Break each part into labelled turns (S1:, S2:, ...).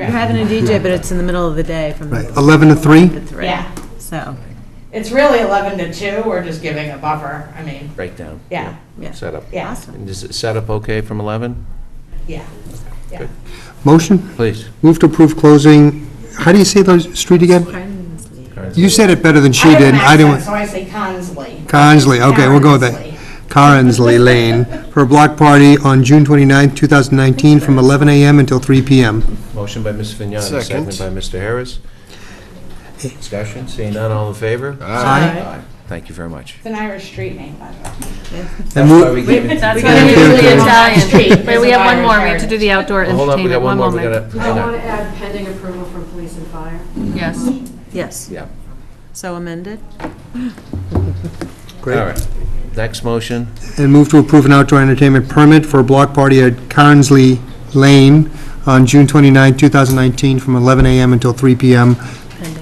S1: You're having a DJ, but it's in the middle of the day from
S2: Right, 11 to 3?
S1: to three.
S3: Yeah.
S1: So,
S3: It's really 11 to 2, we're just giving a buffer, I mean,
S4: breakdown.
S3: yeah,
S1: yeah.
S4: Setup.
S3: yeah,
S1: Awesome.
S4: And is it set up okay from 11?
S3: yeah, yeah.
S4: Good.
S2: Motion?
S4: Please.
S2: Move to approve closing, how do you say the street again?
S1: Carnegie.
S2: You said it better than she did.
S3: I have an accent,
S2: didn't.
S3: so I say Consley.
S2: Carnsley, okay, we'll go with that. Carnsley Lane, for a block party on June 29th, 2019, from 11 a.m. until 3 p.m.
S4: Motion by Ms. Vignani,
S5: Second.
S4: seconded by Mr. Harris. Discussion, seeing none, all in favor?
S1: Aye.
S4: Thank you very much.
S3: It's an Irish street name, by the way.
S2: And
S4: That's why
S2: move-
S4: we gave it-
S6: That's
S4: we
S6: what
S4: gave
S6: I'm
S4: it-
S2: do
S6: usually
S2: to-
S6: Italian.
S3: Street
S6: Wait, we
S3: is
S6: have one
S3: Irish
S6: more. We have to
S3: heritage.
S6: do the outdoor
S4: Hold on, we
S6: entertainment,
S4: got one
S6: one
S4: more, we gotta,
S6: moment.
S4: hang
S7: I want to
S4: on.
S7: add pending approval from police and fire.
S6: Yes.
S1: Yes,
S4: yeah,
S1: so amended.
S4: all
S2: Great.
S4: right. Next motion,
S2: And move to approve an outdoor entertainment permit for a block party at Carnsley Lane on June 29th, 2019, from 11 a.m. until 3 p.m.,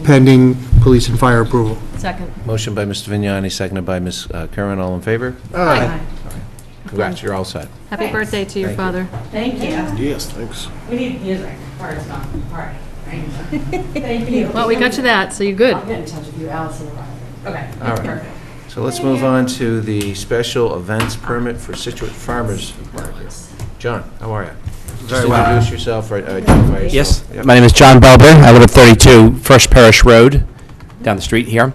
S2: pending police and fire approval.
S6: Second.
S4: motion by Mr. Vignani, seconded by Ms. Curran, all in favor?
S1: Aye.
S4: Congrats, you're all set.
S6: Happy
S3: Thanks.
S6: birthday to your
S4: Thank you.
S6: father.
S3: Thank you.
S5: Yes, thanks.
S3: We need music, or it's not a party, right? Thank you.
S6: Well, we got you that, so you're good.
S7: I'll get in touch with you, Allison.
S3: Okay,
S4: All right.
S3: perfect.
S4: So let's move on to the special events permit for Situate Farmers Market. John, how are you? Just introduce yourself, or identify yourself.
S8: Yes,
S4: Yep.
S8: my name is John Belber. I live at 32 First Parish Road, down the street here.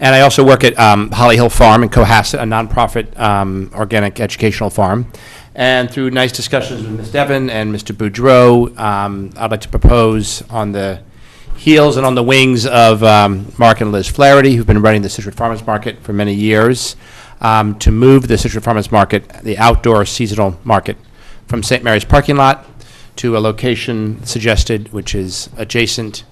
S8: And I also work at um, Holly Hill Farm in Cohasset, a nonprofit um, organic educational farm. And through nice discussions with Ms. Devon and Mr. Boudreau, um, I'd like to propose on the heels and on the wings of um, Mark and Liz Flaherty, who've been running the Situate Farmers Market for many years, um, to move the Situate Farmers Market, the outdoor seasonal market, from St. Mary's parking lot to a location suggested, which is adjacent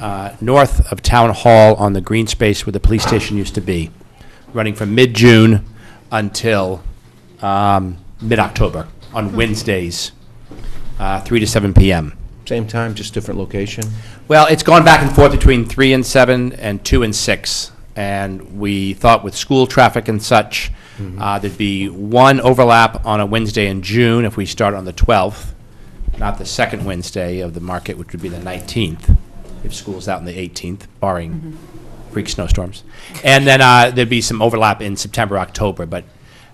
S8: uh, north of Town Hall on the green space where the police station used to be, running from mid-June until um, mid-October on Wednesdays, uh, 3 to 7 p.m.
S4: Same time, just different location?
S8: Well, it's gone back and forth between three and seven and two and six. And we thought with school traffic and such, uh, there'd be one overlap on a Wednesday in June if we start on the 12th, not the second Wednesday of the market, which would be the 19th, if school's out on the 18th, barring freak snowstorms. And then uh, there'd be some overlap in September, October, but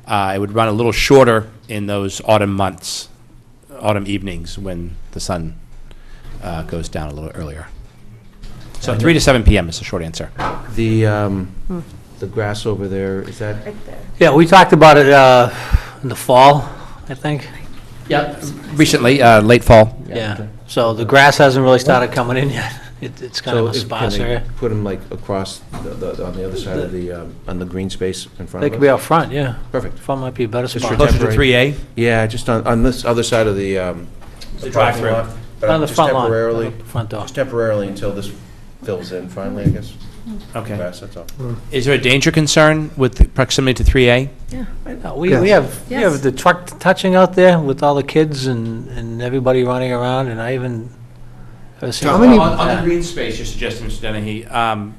S8: uh, it would run a little shorter in those autumn months, autumn evenings when the sun uh, goes down a little earlier. So 3 to 7 p.m. is the short answer.
S4: The, um, the grass over there, is that,
S9: Yeah, we talked about it uh, in the fall, I think.
S8: Yeah. Recently, uh, late fall.
S9: Yeah. So the grass hasn't really started coming in yet. It- It's kind
S4: so
S9: of a
S4: if-
S9: sparse
S4: can they
S9: area.
S4: put them like across, the- the- on the other side of the, um, on the green space in front of us?
S9: They could be out front, yeah.
S4: Perfect.
S9: Front might be a better
S4: Just for
S9: spot.
S4: temp-
S8: Closer to 3A?
S4: Yeah, just on, on this other side of the. um,
S8: The drive-through.
S4: parking lot, but
S9: On the
S4: just
S9: front lawn,
S4: temporarily-
S9: on the front door.
S4: Just temporarily until this fills in finally, I guess.
S8: Okay.
S4: Grass, that's all.
S8: Is there a danger concern with the proximity to 3A?
S9: No, We we have, we have the truck touching out there with all the kids and and everybody running around, and I even... I've seen-
S2: How many-
S8: green space you're suggesting, Mr. Dennehy, um,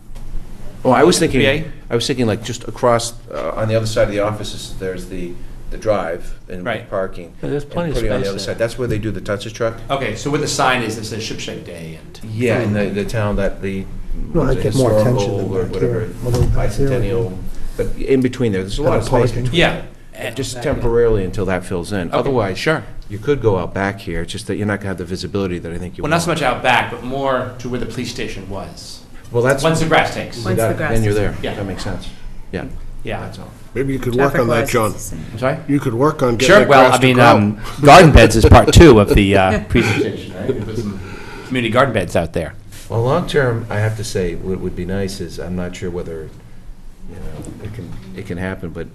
S4: Oh, I was
S8: VA?
S4: thinking, I was thinking like just across, uh, on the other side of the offices, there's the, the drive and
S8: Right.
S4: parking.
S9: Yeah, there's
S4: and
S9: plenty of
S4: putting on the
S9: space
S4: other
S9: there.
S4: side. That's where they do the Tunsis truck.
S8: okay, so where the sign is, it says Shipshape Day and...
S4: Yeah, in the, the town that the.
S2: No, I
S4: was it
S2: Hmm. get more attention
S4: historical
S2: than
S4: or
S2: back
S4: whatever,
S2: here, a little back here.
S4: Bicentennial, but in between there, there's a lot of
S2: Kind of
S4: space
S2: parking.
S4: between.
S8: Yeah.
S4: Just temporarily until that fills in. Otherwise,
S8: sure.
S4: You could go out back here, it's just that you're not gonna have the visibility that I think you
S8: Well,
S4: want.
S8: not so much out back, but more to where the police station was.
S4: Well, that's.
S8: Once the grass takes.
S4: you
S1: Once
S4: got
S1: the
S4: it,
S1: grass
S4: Then you're
S1: is-
S4: there.
S8: Yeah.
S4: That makes sense. Yeah.
S8: Yeah.
S4: That's all.
S5: Maybe you could work on that, John.
S8: I'm sorry?
S5: You could work on getting
S8: Sure,
S5: that
S8: well,
S5: grass
S8: I
S5: to
S8: mean,
S5: grow.
S8: um, garden beds is part two of the uh, presentation, right? We put some Community garden beds out there.
S4: Well, long-term, I have to say, what would be nice is, I'm not sure whether, you know, it can, it can happen, but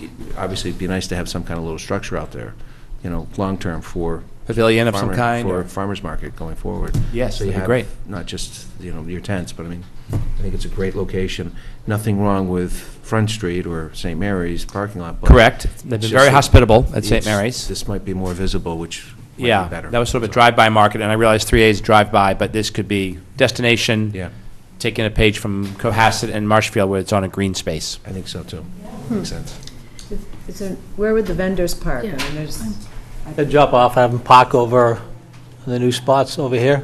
S4: it- obviously, it'd be nice to have some kind of little structure out there, you know, long-term for.
S8: Pavilion of some
S4: farmer-
S8: kind,
S4: For
S8: or-
S4: farmer's market going forward.
S8: Yes,
S4: So you
S8: that'd be
S4: have
S8: great.
S4: Not just, you know, your tents, but I mean, I think it's a great location. Nothing wrong with Front Street or St. Mary's parking lot. but
S8: Correct. They've
S4: it's
S8: been
S4: just
S8: very
S4: that
S8: hospitable at St.
S4: it's-
S8: Mary's.
S4: This might be more visible, which might be
S8: Yeah,
S4: better.
S8: that was sort of a drive-by market, and I realize 3A is drive-by, but this could be destination.
S4: Yeah.
S8: Taking a page from Cohasset and Marshfield where it's on a green space.
S4: I think so, too. Makes sense.
S1: Is there- Where would the vendors park? I mean,
S6: Yeah.
S1: there's-
S9: They drop off, have them park over in the new spots over here.